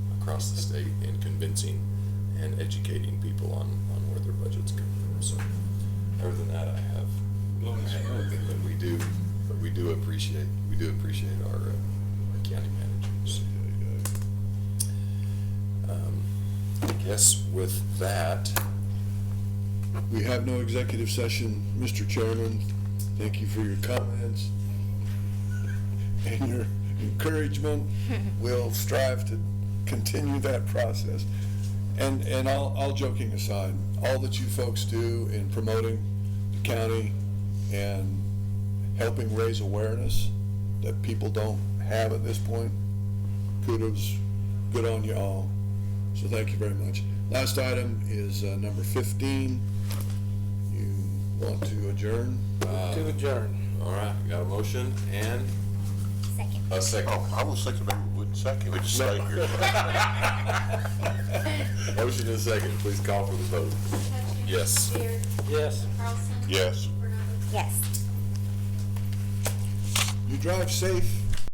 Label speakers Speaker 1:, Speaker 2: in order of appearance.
Speaker 1: across the state in convincing and educating people on, on where their budgets come from. So, other than that, I have, I have nothing, but we do, but we do appreciate, we do appreciate our, uh, our county managers.
Speaker 2: uh,
Speaker 1: Um, I guess with that,
Speaker 2: We have no executive session, Mr. Chairman. Thank you for your comments and your encouragement. We'll strive to continue that process. And, and all, all joking aside, all that you folks do in promoting the county and helping raise awareness that people don't have at this point, kudos, good on you all. So thank you very much. Last item is uh, number 15. You want to adjourn?
Speaker 3: To adjourn.
Speaker 1: all right, we got a motion and
Speaker 4: Second.
Speaker 1: a second.
Speaker 5: Oh, I was thinking maybe we wouldn't second, we just stay here.
Speaker 1: Motion and second, please call for the vote. Yes.
Speaker 4: Baird?
Speaker 3: Yes.
Speaker 4: Carlson?
Speaker 5: Yes.
Speaker 4: Yes.
Speaker 2: You drive safe.